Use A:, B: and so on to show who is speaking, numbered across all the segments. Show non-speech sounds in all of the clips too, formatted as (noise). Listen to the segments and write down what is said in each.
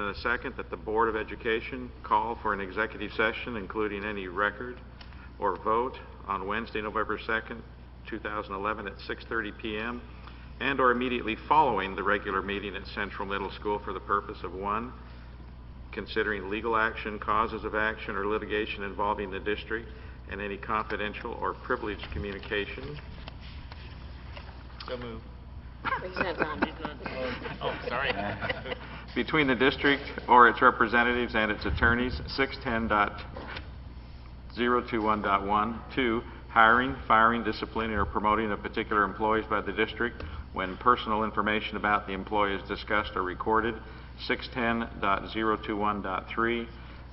A: a second that the Board of Education call for an executive session, including any record or vote, on Wednesday, November 2nd, 2011, at 6:30 PM, and/or immediately following the regular meeting at Central Middle School for the purpose of, one, considering legal action, causes of action, or litigation involving the district, and any confidential or privileged communication.
B: So moved.
C: He's not done.
B: (laughs) Oh, sorry.
D: (laughs)
A: between the district or its representatives and its attorneys, 610.021.1. Two, hiring, firing, disciplining, or promoting of particular employees by the district when personal information about the employee is discussed or recorded, 610.021.3.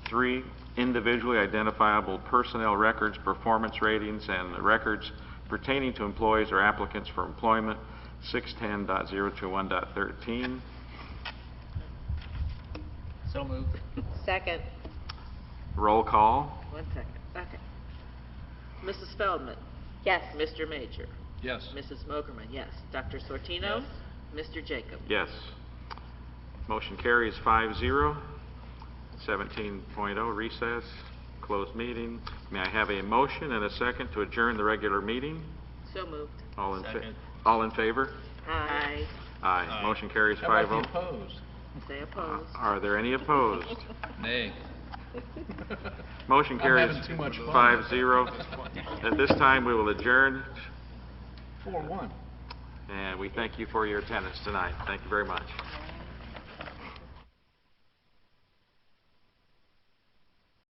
A: Three, individually identifiable personnel records, performance ratings, and records pertaining to employees or applicants for employment, 610.021.13.
B: So moved.
C: Second.
A: Roll call?
D: One second, okay. Mrs. Feldman?
C: Yes.
D: Mr. Major?
B: Yes.
D: Mrs. Mogerman, yes. Dr. Sortino? Mr. Jacob?
A: Yes. Motion carries five zero. 17.0 recess, closed meeting. May I have a motion and a second to adjourn the regular meeting?
D: So moved.
A: All in, fa-
B: Second.
A: all in favor?
D: Aye.
A: Aye. Motion carries
B: How about
A: five oh.
B: the opposed?
D: Say opposed.
A: Are there any opposed?
B: Nay.
A: Motion
B: I'm
A: (laughs) carries
B: having too much fun.
A: five zero. At this time, we will adjourn,
B: Four, one.
A: and we thank you for your attendance tonight. Thank you very much.